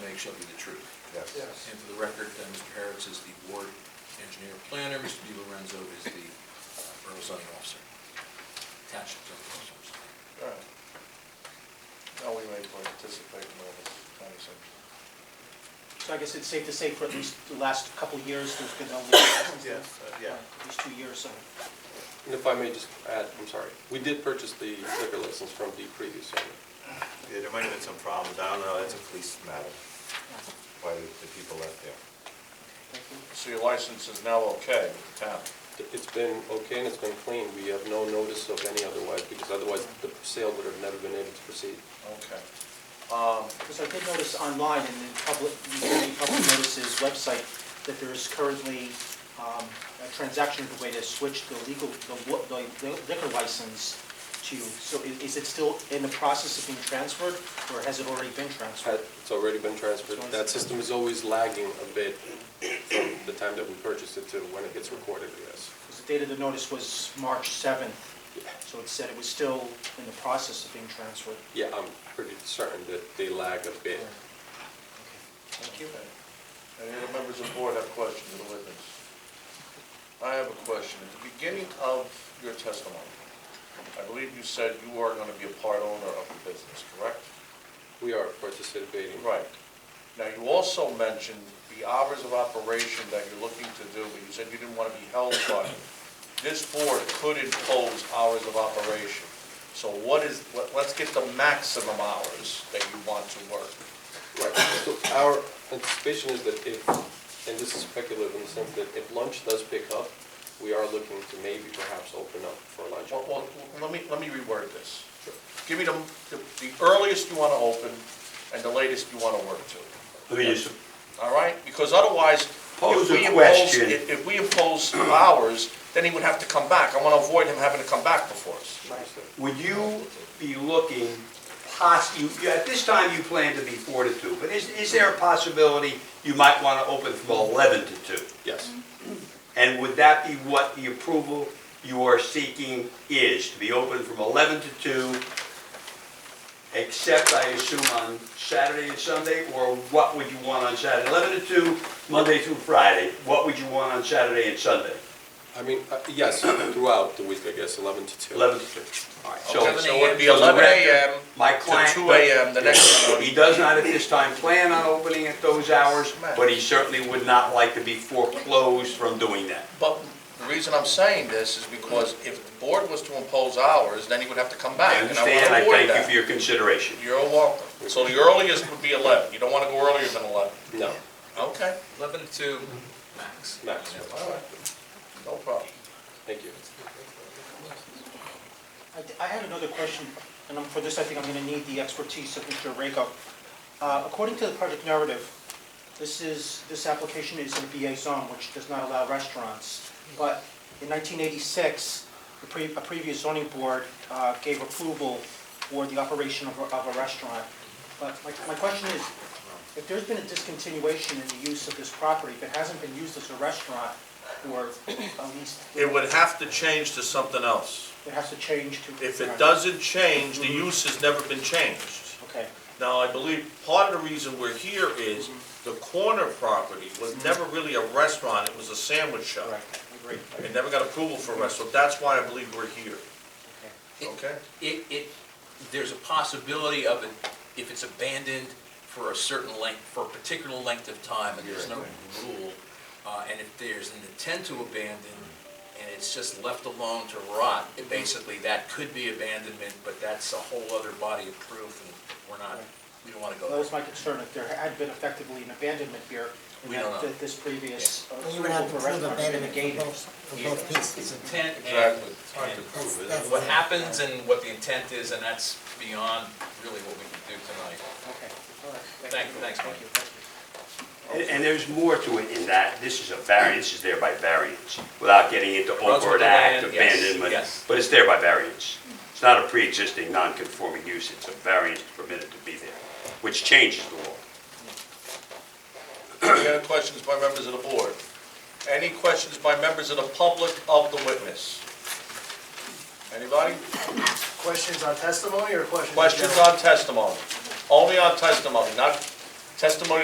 hearing shall be the truth. Yes. Yes. And for the record, uh, Mr. Harris is the board engineer planner, Mr. Di Lorenzo is the uh, borough zoning officer. Township zoning officer. I'm sorry. All right. Now we may participate in all this kind of stuff. So I guess it's safe to say for at least the last couple of years, there's been no legal license. Yes, uh, yeah. At least two years, so. And if I may just add, I'm sorry, we did purchase the liquor license from the previous owner. Yeah, there might have been some problems, I don't know, that's a police matter, By the the people left there. Thank you. So your license is now okay with the town? It's been okay and it's been clean. We have no notice of any otherwise, because otherwise the sale would have never been able to proceed. Okay. Um, Because I did notice online and in public, in public notices website, that there is currently um, a transaction of the way to switch the legal, the wa- the liquor license to, so i- is it still in the process of being transferred, or has it already been transferred? Had- It's already been transferred. That system is always lagging a bit from the time that we purchased it to when it gets recorded, yes. Because the date of the notice was March 7th, so it said it was still in the process of being transferred. Yeah, I'm pretty certain that they lag a bit. Thank you. Any other members of the board have questions of the witness? I have a question. At the beginning of your testimony, I believe you said you are going to be a part owner of the business, correct? We are participating. Right. Now, you also mentioned the hours of operation that you're looking to do, but you said you didn't want to be held by it. This board could impose hours of operation. So what is, let- let's get the maximum hours that you want to work. Right, so our anticipation is that if, and this is speculative in the sense that if lunch does pick up, we are looking to maybe perhaps open up for lunch. Well, well, let me, let me reword this. Give me the, the earliest you want to open and the latest you want to work to, Let me just, all right? Because otherwise, if Pose a we impose, question. if if we impose hours, then he would have to come back. I want to avoid him having to come back before us. would you be looking poss, you, you- at this time you plan to be four to two, but is, is there a possibility you might want to open from eleven to two? Yes, And would that be what the approval you are seeking is, to be open from eleven to two? Except, I assume, on Saturday and Sunday, or what would you want on Saturday? Eleven to two, Monday through Friday, what would you want on Saturday and Sunday? I mean, uh, yes, throughout the week, I guess, 11 to 2. Eleven to two. All right, so- Okay, So it would be so the 11 rec- a.m. My to client. 2 a.m. the next morning. He does not at this time plan on opening at those hours, but he certainly would not like to be foreclosed from doing that. But the reason I'm saying this is because if the board was to impose hours, then he would have to come back. I and understand, wanna I avoid thank you that. for your consideration. You're welcome. So the earliest would be 11. You don't want to go earlier than 11. No, Okay, 11 to 2, max. Max. all right. No problem. thank you. I d- I had another question, and um, for this, I think I'm going to need the expertise of Mr. Rako. Uh, According to the project narrative, this is, this application is in a BA zone, which does not allow restaurants. But in 1986, the pre- a previous zoning board uh, gave approval for the operation of a- of a restaurant. But my my question is, if there's been a discontinuation in the use of this property, if it hasn't been used as a restaurant, or at least it would have to change to something else. it has to change to... If it doesn't change, the Mm-hmm. use has never been changed. Okay. Now, I believe part of the reason we're here is Mm-hmm. the corner property was never really a restaurant, it was a sandwich shop. Right, agree. It never got approval for a restaurant, that's why I believe we're here, okay? It, it, there's a possibility of it, if it's abandoned for a certain length, for a particular length of time, and there's no rule, uh, and if there's an intent to abandon, and it's just left alone to rot, it basically, that could be abandonment, but that's a whole other body of proof, and we're not, we don't want to go That there. was my concern, if there had been effectively an abandonment here. We don't know. that This previous. uh, You would have to approval for prove restaurants abandonment negated. for both, for both It's pieces. intent and, Exactly. It's hard to and prove, isn't it? That's- what happens and what the intent is, and that's beyond really what we can do tonight. Okay, all right. Thank you, thanks, Mike. Thank you, thank you. And- And there's more to it in that, this is a variance, is there by variance, without getting into Runs with overt the act, land, yes, abandonment, yes. but it's there by variance. It's not a pre-existing non-conforming use, it's a variance permitted to be there, which changes the law. Any other questions by members of the board? Any questions by members of the public of the witness? Anybody? Questions on testimony or questions? in Questions general? on testimony? Only on testimony, not testimony